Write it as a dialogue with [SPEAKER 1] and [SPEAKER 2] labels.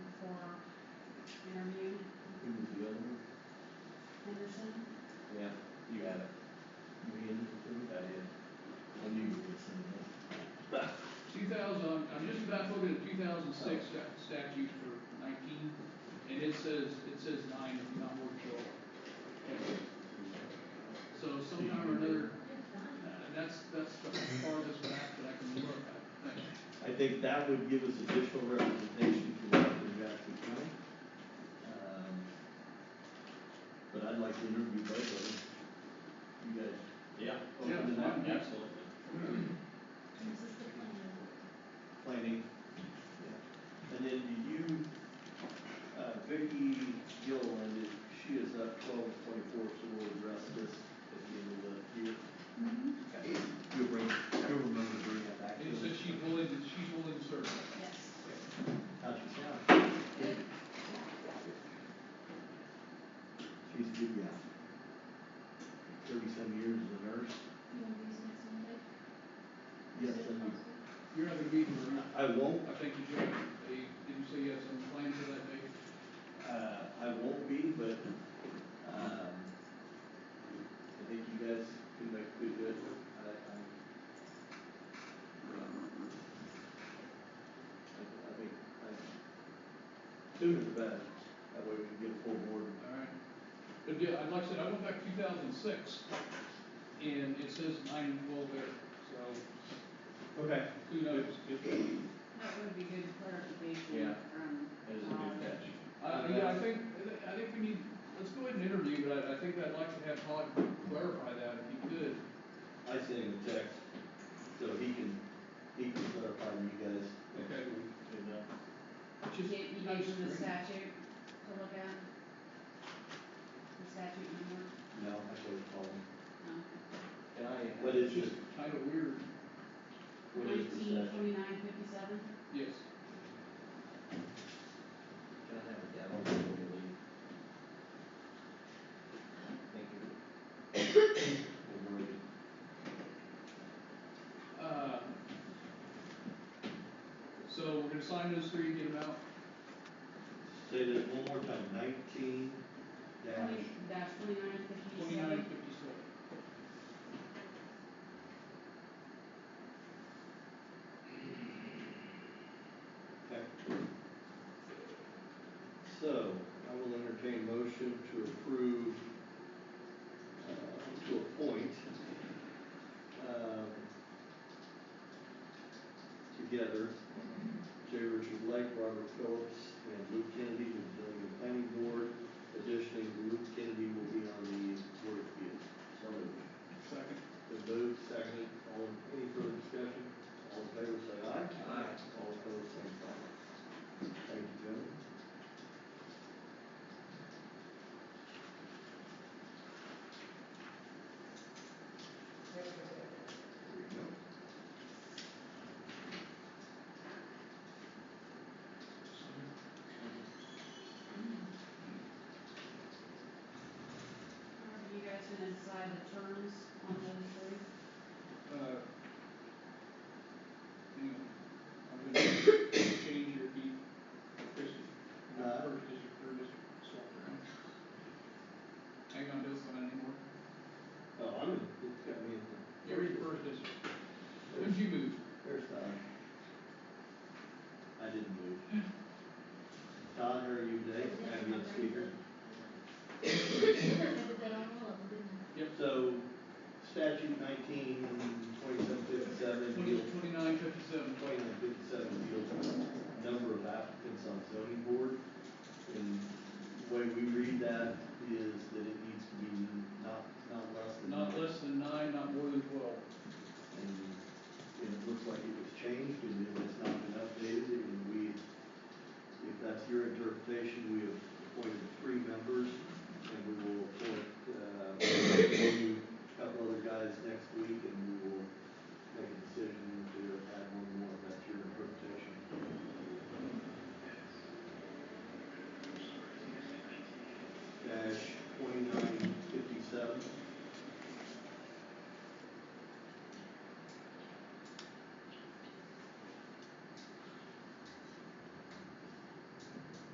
[SPEAKER 1] six sta- statute for nineteen, and it says, it says nine if you're not more sure. So somehow or another, uh, that's, that's the farthest back that I can look at.
[SPEAKER 2] I think that would give us additional representation for Rockland Jackson County. Um, But I'd like to interview both of them. You guys
[SPEAKER 3] Yeah.
[SPEAKER 2] open to that?
[SPEAKER 1] Yeah.
[SPEAKER 3] Absolutely.
[SPEAKER 4] Is this the plan?
[SPEAKER 2] Planning. Yeah. And then do you, uh, Vicky Gilliland, she is up twelve to twenty-four, so we'll address this at the end of the year. Okay. You'll bring, you'll remember to bring that back. to
[SPEAKER 1] It
[SPEAKER 2] us.
[SPEAKER 1] says she's willing, to- she's willing to serve.
[SPEAKER 4] Yes.
[SPEAKER 2] How's she sound? She's a good gal. Thirty-some years as a nurse.
[SPEAKER 4] You want to use next Monday?
[SPEAKER 2] Yes,
[SPEAKER 4] Is it
[SPEAKER 2] and
[SPEAKER 4] possible?
[SPEAKER 1] You're having a meeting or not?
[SPEAKER 2] I won't,
[SPEAKER 1] I think you should, have a did you say you had some plans for that day?
[SPEAKER 2] uh, I won't be, but, um, I think you guys can make pretty good. I, I'm. I, I think, I, sooner the better, that way we can get a full board.
[SPEAKER 1] All right. But yeah, I'd like I said, I went back to two thousand six, and it says nine and twelve there, so
[SPEAKER 2] Okay.
[SPEAKER 1] who knows?
[SPEAKER 5] That would be good
[SPEAKER 1] Yeah.
[SPEAKER 5] clarification from.
[SPEAKER 3] That is a
[SPEAKER 5] um,
[SPEAKER 3] good catch.
[SPEAKER 1] Uh, yeah, I think, I think we need, let's go ahead and interview, but I, I think I'd like to have Todd clarify that if he could.
[SPEAKER 2] I sent him a text, so he can, he can clarify to you guys.
[SPEAKER 1] Okay.
[SPEAKER 2] You know?
[SPEAKER 5] You
[SPEAKER 1] Just-
[SPEAKER 5] gave, you
[SPEAKER 1] I
[SPEAKER 5] gave
[SPEAKER 1] just-
[SPEAKER 5] them the statute to look at? The statute number?
[SPEAKER 2] uh, No, I should have called him.
[SPEAKER 5] No.
[SPEAKER 3] Can I?
[SPEAKER 2] What is
[SPEAKER 1] It's
[SPEAKER 2] this,
[SPEAKER 1] just kind of weird,
[SPEAKER 2] what is the
[SPEAKER 5] Nineteen
[SPEAKER 2] session?
[SPEAKER 5] twenty-nine fifty-seven?
[SPEAKER 1] yes.
[SPEAKER 3] Can I have a gavel before we leave? Thank you.
[SPEAKER 2] We'll work it.
[SPEAKER 1] Uh, So we're gonna sign those three, get them out.
[SPEAKER 2] Say this one more time, nineteen dash,
[SPEAKER 5] Dash twenty-nine fifty-seven?
[SPEAKER 1] Twenty-nine fifty-seven.
[SPEAKER 2] okay. So, I will entertain motion to approve, uh, to appoint, um, together, J. Richard Lake, Robert Phillips, and Luke Kennedy to the Delegate Planning Board. Additionally, Luke Kennedy will be on the Board of Appeals. So moved.
[SPEAKER 1] Second.
[SPEAKER 2] Been moved, seconded, all, in- any further discussion? All in favor, say aye.
[SPEAKER 3] Aye.
[SPEAKER 2] All opposed, same sign. Thank you, gentlemen. There you go.
[SPEAKER 5] Are you guys gonna decide the terms on those three?
[SPEAKER 1] Uh, hang on. I'm gonna change your beat, Christian, your
[SPEAKER 2] Uh.
[SPEAKER 1] first district, third district, swap around. Hang on, don't sign anymore.
[SPEAKER 2] Oh, I'm, in- it's got me in the,
[SPEAKER 1] You're in first district. When'd
[SPEAKER 2] there's,
[SPEAKER 1] you move?
[SPEAKER 2] there's Todd. I didn't move. Todd, how are you today? Have you been speaker?
[SPEAKER 4] But I don't know, I didn't.
[SPEAKER 2] So statute nineteen, twenty-seven fifty-seven
[SPEAKER 1] Twenty,
[SPEAKER 2] deals
[SPEAKER 1] twenty-nine, fifty-seven.
[SPEAKER 2] twenty-nine fifty-seven deals with number of applicants on zoning board. And the way we read that is that it needs to be not, not less than.
[SPEAKER 1] Not less than nine, not more than twelve.
[SPEAKER 2] And and it looks like it was changed and it has not been updated and we, if that's your interpretation, we have appointed three members and we will appoint, uh, a couple other guys next week and we will